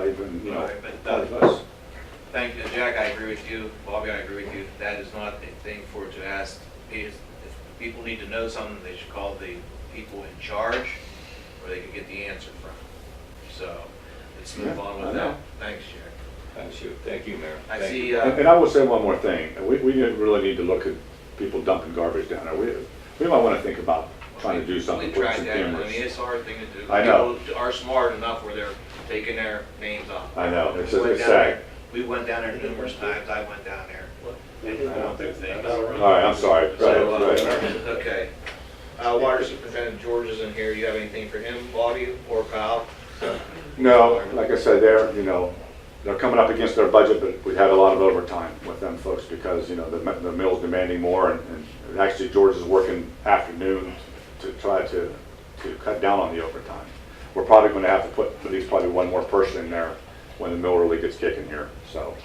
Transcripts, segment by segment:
even, you know, Right, but, uh, part of us. Thank you, Jack, I agree with you, Bobby, I agree with you, that is not a thing for to ask. If if people need to know something, they should call the people in charge, where they can get the answer from. So, let's move Yeah, on I with know. that. Thanks, Jack. Thank you, thank you, Mayor. I Thank you. see, And uh, and I will say one more thing, we, we didn't really need to look at people dumping garbage down there, we, we might wanna think about trying to do something We with some tried that, I mean, cameras. it's a hard thing to do. I know. People are smart enough where they're taking their names off. I know, it's, We went it's down there- sad. We went down there numerous times, I went down there. and did I know. their things. All right, I'm sorry, Right, So, uh, right, right. Okay. Uh, Water Superintendent George is in here. You have anything for him, Bobby or Kyle? No, like I said, they're, you know, they're coming up against their budget, but we had a lot of overtime with them folks because, you know, the, mi- the mill's demanding more and, and actually George is working afternoons to try to, to cut down on the overtime. We're probably gonna have to put at least probably one more person in there when the mill really gets kicking here, so,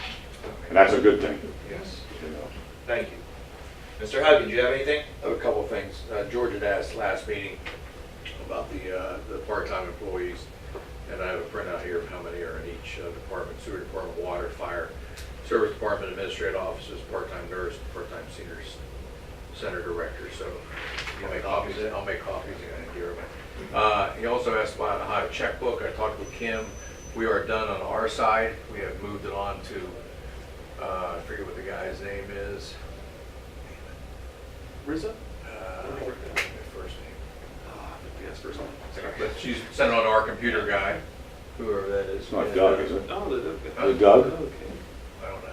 and that's a good thing, Yes. you know. Thank you. Mr. Huggy, do you have anything? I have a couple of things. Uh, George had asked last meeting about the, uh, the part-time employees, and I have a printout here of how many are in each uh, department, sewer department, water, fire, service department, administrative offices, part-time nurse, part-time seniors, center director, so I'll make copies, I'll make copies, and give them. Uh, He also asked about how to checkbook, I talked with Kim, we are done on our side, we have moved it on to, uh, I forget what the guy's name is, Rizzo? uh, first name. Ah, yes, first name. But she's sent it on to our computer guy, whoever that is. It's not Doug, is it? Oh, the, the. Is it Doug? I don't know.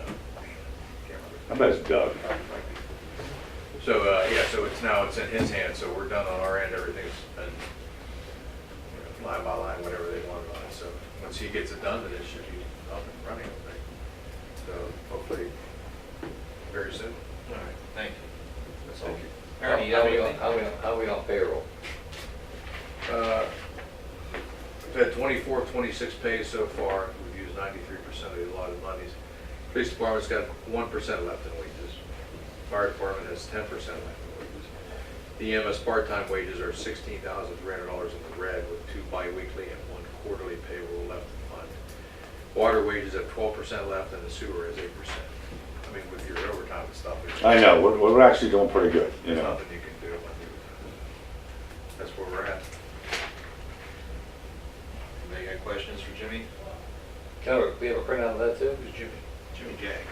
Can't I bet it's Doug. remember. So, uh, yeah, so it's now, it's in his hands, so we're done on our end, everything's been you know, line by line, whatever they wanted on it, so once he gets it done, then it should be up and running, I think. So hopefully, very soon. All right, thank you. That's all. How Ernie, you have we on, anything? how we on, how we on payroll? Uh, We've had 24, 26 pays so far, we've used 93% of the allotted monies. Police department's got 1% left in wages. Fire department has 10% left in wages. The EMS part-time wages are $16,300 in the red with two bi-weekly and one quarterly payroll left in fund. Water wages have 12% left and the sewer is 8%. I mean, with your overtime and stuff. it's- I know, we're, we're actually doing pretty good, you There's know. nothing you can do. That's where we're at. Anybody got questions for Jimmy? Can we- we have a printout of that too? Who's Jimmy? Jimmy Jags.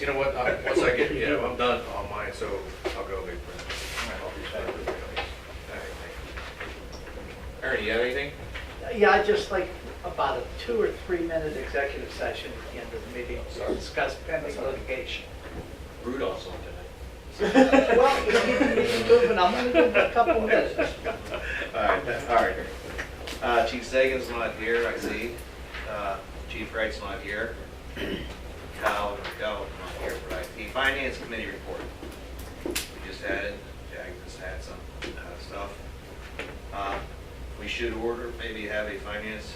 Yeah. You know what, I- once I get, you know, I'm done on mine, so I'll go make print. Ernie, you have anything? Yeah, I'd just like about a two or three minute executive session at the end of the meeting to discuss pending litigation. Rudolph's on tonight. Well, you keep the meeting moving, I'm gonna give it a couple minutes. All right, that- all right. Uh, Chief Sagan's not here, I see. Uh, Chief Wright's not here. Kyle, Kyle not here, right. The Finance Committee report. We just had it, Jack just had some uh, stuff. Uh, We should order, maybe have a finance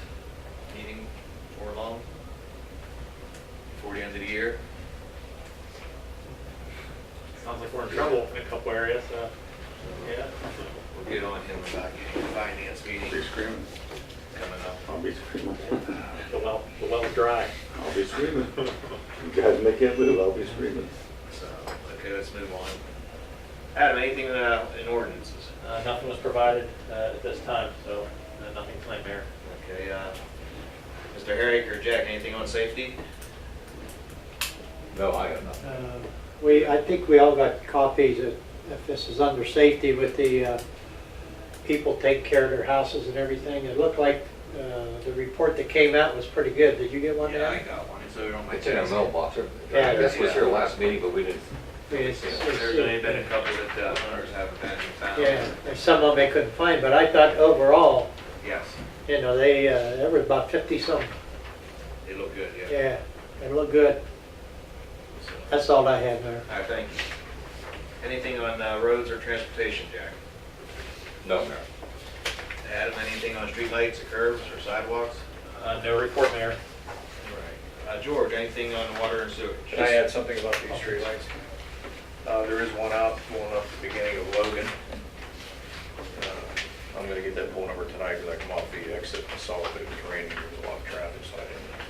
meeting for long, before the end of the year. Sounds like we're in trouble in a couple areas, so, yeah. We'll get on him about getting a finance meeting Be screaming, coming up. I'll be screaming, The well, the well's dry. Uh, I'll be screaming. You guys make it move, I'll be screaming. So, okay, let's move on. Adam, anything uh, in ordinances? Uh, nothing was provided, uh, at this time, so, uh, nothing planned there. Okay, uh, Mr. Herrick or Jack, anything on safety? No, I got nothing. Uh, We, I think we all got copies of, if this is under safety with the uh, people take care of their houses and everything. It looked like uh, the report that came out was pretty good. Did you get one? Dan? got one, so we don't It's in our mailbox. I Yeah, guess we yeah. here last meeting, but we didn't, I mean, it's- it's- There's only been a couple that uh, hunters haven't been found. Yeah, there's some of them I couldn't find, but I thought overall, Yes, you know, they, uh, there were about 50 some. they look good, yeah. Yeah, they looked good. So, That's all I had there. All right, thank you. Anything on uh, roads or transportation, Jack? no, Mayor. Adam, anything on streetlights or curbs or sidewalks? Uh, no report, Mayor. All right. Uh, George, anything on water and sewage? Can I add something about these streetlights? Uh, there is one out, going up the beginning of Logan. Uh, I'm gonna get that pole number tonight, because I come off the exit and saw that it was raining, there was a lot of traffic, so I didn't